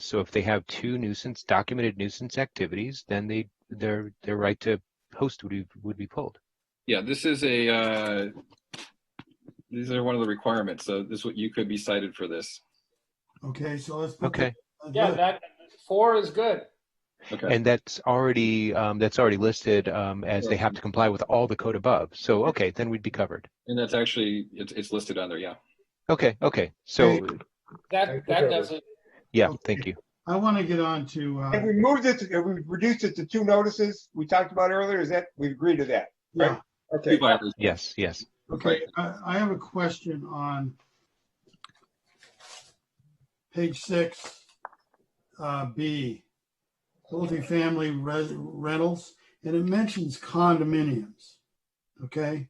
So if they have two nuisance, documented nuisance activities, then they, their, their right to host would be, would be pulled. Yeah, this is a, uh, these are one of the requirements. So this, would- you could be cited for this. Okay, so let's. put Okay, the- Yeah, that four is good. Okay. and that's already, um, that's already listed, um, as they have to comply with all the code above. So, okay, then we'd be covered. And that's actually, it's, it's listed on there. Yeah. Okay, okay, so, That, that doesn't, yeah, thank you. I want to get on to, And uh, we moved it, to- and we reduced it to two notices we talked about earlier, is that, we agreed to that? yeah, Two Okay, violators. Yes, yes. okay, I, I have a question on page six, uh, B, multifamily res- rentals, and it mentions condominiums, okay?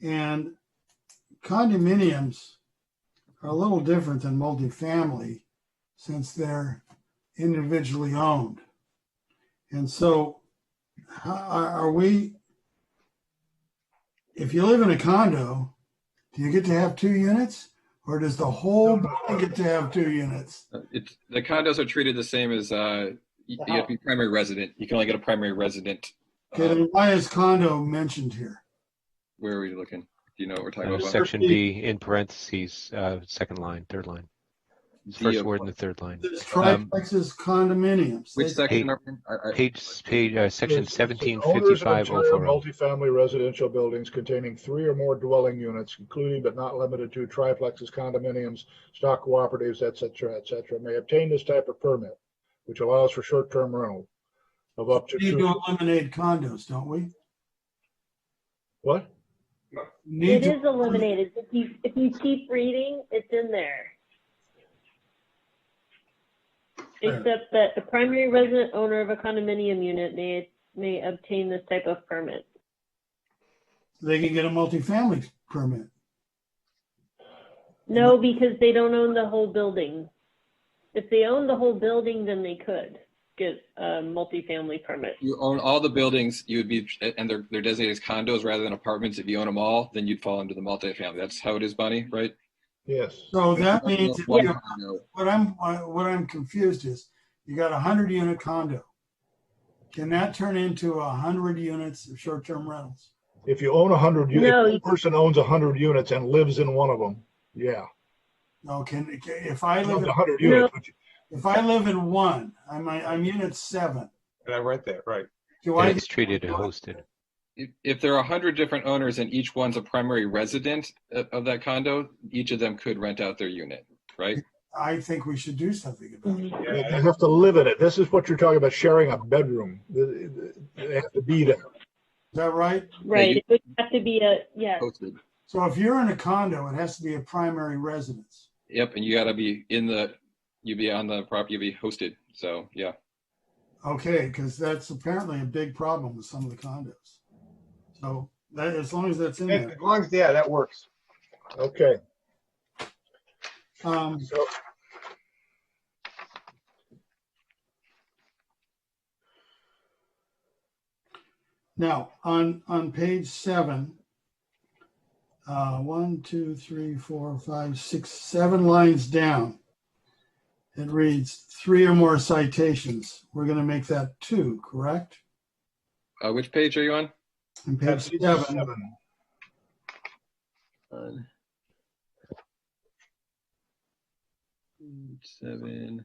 And condominiums are a little different than multifamily since they're individually owned. And so how- are are we, if you live in a condo, do you get to have two units? Or does the whole building get to have two units? It's, the condos are treated the same as, uh, you you have to be primary resident. You can only get a primary resident. Okay, Um, then why is condo mentioned here? Where are we looking? Do you know what we're talking Uh, about? Section B in parentheses, uh, second line, third line, D first uh, of- word in the third line. There's triplexes, condominiums. Which They- section are we in? I- I- Page, page, uh, section It's- it's the seventeen owners of fifty-five oh interior four. Multifamily residential buildings containing three or more dwelling units, including but not limited to triplexes, condominiums, stock cooperatives, et cetera, et cetera, may obtain this type of permit, which allows for short-term rental of up to We Need to two, eliminate condos, don't we? what? Need It to, is eliminated. If you, if you keep reading, it's in there. Except that the primary resident owner of a condominium unit may, may obtain this type of permit. they can get a multifamily permit. No, Mm-hmm. because they don't own the whole building. If they own the whole building, then they could get a multifamily permit. You own all the buildings, you would be, and they're, they're designated as condos rather than apartments. If you own them all, then you'd fall into the multifamily. That's how it is, Bonnie, right? Yes. So that means, if you- Condo. what I'm, what I'm confused is, you got a hundred unit condo. Can that turn into a hundred units of short-term rentals? If you own a hundred, if No, a you- person owns a hundred units and lives in one of them, yeah. No, can, can- if I I live, live a in- hundred No. units, but you- if I live in one, I'm, I'm unit seven, and I read that, right. do And I, it's treated and hosted. If, if there are a hundred different owners and each one's a primary resident of, of that condo, each of them could rent out their unit, right? I think we should do something Mm-hmm. about Mm-hmm. it. they they have to live in it. This is what you're talking about, sharing a bedroom. They they have to be there. Is that right? Right, it would have to be a, yeah, Hosted. So if you're in a condo, it has to be a primary residence. Yep, and you gotta be in the, you'd be on the property, you'd be hosted. So, yeah. Okay, because that's apparently a big problem with some of the condos. So that, as long as that's in As there. long as, yeah, that works. Okay. Um, So now, on, on page seven, uh, one, two, three, four, five, six, seven lines down. It reads three or more citations. We're going to make that two, correct? Uh, which page are you on? On page that's seven, seven. Seven.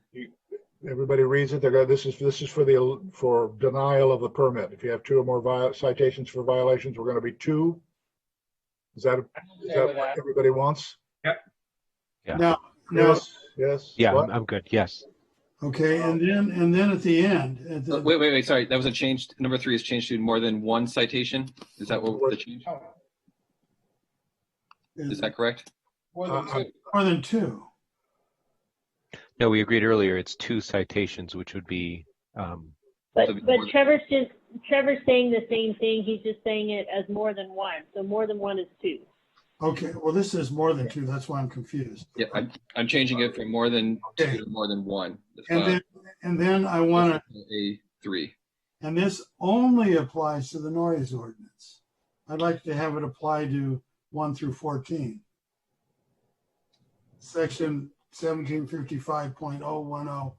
Everybody reads it, they go, this is, this is for the, for denial of the permit. If you have two or more vi- citations for violations, we're gonna be two. Is that, is Okay that with that. what everybody wants? no, Yes, yes. Yeah, What? I'm, I'm good, yes. okay, and then, and then at the end, at Uh, the- Wait, wait, wait, sorry, that was a change, number three is changed to more than one citation? Is that what the change, is that correct? more than Uh, two. more than two. No, we agreed earlier, it's two citations, which would be, um, but, So it'd be but more than- Trevor's just, Trevor's saying the same thing, he's just saying it as more than one, so more than one is two. Okay, well, this is more than two, that's why I'm confused. Yeah, I'm, I'm changing it from more than two to more than one. Uh, And then, and then I want to, A three. and this only applies to the noise ordinance. I'd like to have it apply to one through fourteen. Section seventeen fifty-five point oh one oh